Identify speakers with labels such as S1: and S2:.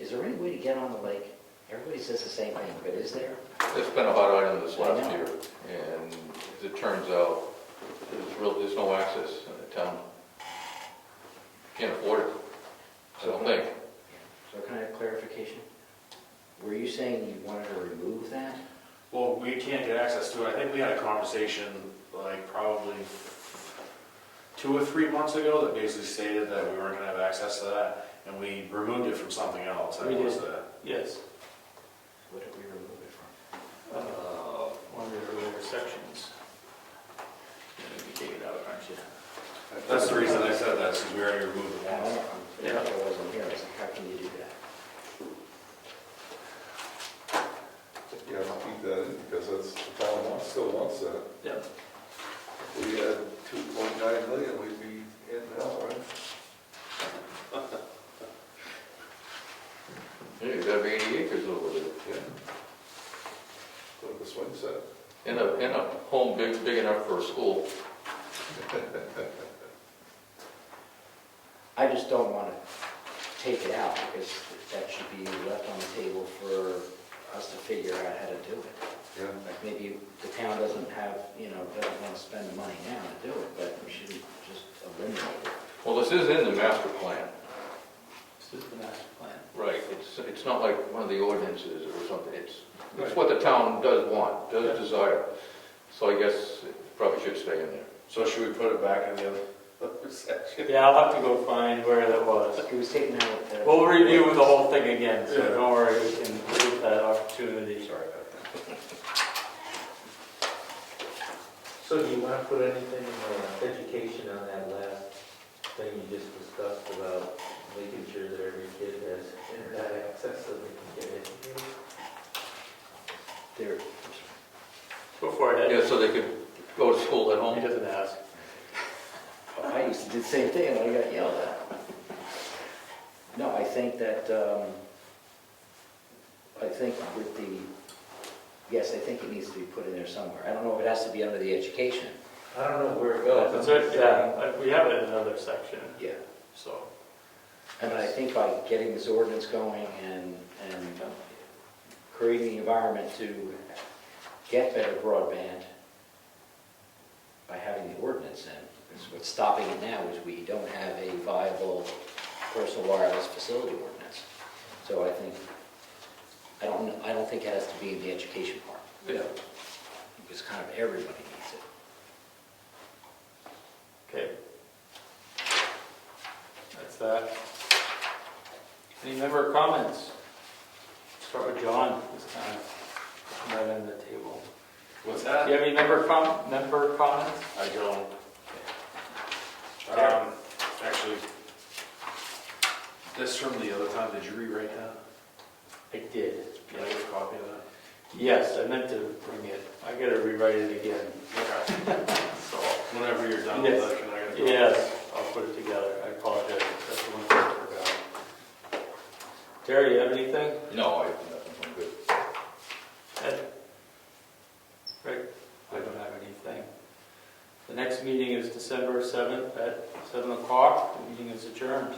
S1: is there any way to get on the lake? Everybody says the same thing, but is there?
S2: It's been a hot item this
S1: I
S2: last
S1: know.
S2: year, and as it turns out, there's real, there's no access in the town. Can't afford it, I don't think.
S1: So can I have clarification? Were you saying you wanted to remove that?
S3: Well, we can't get access to it. I think we had a conversation like probably two or three months ago that basically stated that we weren't gonna have access to that, and we removed it from something else.
S4: We
S3: That was
S4: did.
S3: the,
S4: Yes,
S1: What did we remove it from?
S4: uh, one of the earlier sections. You take it out, aren't you?
S3: that's the reason I said that, because we already removed it
S1: I don't
S3: once.
S1: know.
S4: Yeah.
S1: I wasn't here, I was like, how can you do that?
S5: You have to keep that in because that's, the town wants, still wants that.
S4: Yep.
S5: If we had two point nine million, we'd be in hell, right?
S2: Yeah, you gotta be eighty acres over there,
S5: Yeah. Look at the swing set.
S2: in a, in a home big, big enough for a school.
S1: I just don't want to take it out, because that should be left on the table for us to figure out how to do it.
S5: Yeah.
S1: Like, maybe the town doesn't have, you know, doesn't want to spend the money now to do it, but we shouldn't just eliminate it.
S2: Well, this is in the master plan.
S4: This is the master plan.
S2: Right. It's, it's not like one of the ordinances or something, it's, it's what the town does want, does desire. So I guess it probably should stay in there.
S3: So should we put it back in the other section?
S4: Yeah, I'll have to go find where that was.
S1: It was taken out of the...
S4: We'll review the whole thing again, so
S3: Yeah.
S4: don't worry, we can leave that opportunity.
S3: Sorry about that.
S6: So do you want to put anything, uh, education on that last thing you just discussed about making sure that every kid has internet access so they can get educated?
S1: There,
S4: Before I
S2: Yeah,
S4: head,
S2: so they could go to school at
S4: he
S2: home.
S4: doesn't ask.
S1: I used to do the same thing, and I got yelled at. No, I think that, um, I think with the, yes, I think it needs to be put in there somewhere. I don't know if it has to be under the education.
S6: I don't know where it goes.
S4: That's it, yeah, like, we have it in another section,
S1: Yeah.
S4: so.
S1: And I think by getting this ordinance going and, and creating the environment to get better broadband by having the ordinance in, 'cause what's stopping it now is we don't have a viable personal wireless facility ordinance. So I think, I don't, I don't think it has to be in the education part,
S2: Yeah.
S1: because kind of everybody needs it.
S4: Okay. That's that. Any member comments? Start with John this time, from that end of the table.
S3: What's
S4: Do
S3: that?
S4: you have any member com, member comments?
S3: I don't.
S4: Yeah.
S3: Um, actually, this from the other time, did you rewrite that?
S4: I did.
S3: Can I get a copy of that?
S4: Yes, I meant to bring it, I gotta rewrite it again,
S3: Okay.
S4: so.
S3: Whenever you're done with
S4: Yes.
S3: that, can I get a copy?
S4: Yes, I'll put it together, I apologize, that's the one thing I forgot. Terry, you have anything?
S2: No, I, I'm good.
S4: Ed? Rick? I don't have anything. The next meeting is December 7th at 7 o'clock. The meeting is adjourned.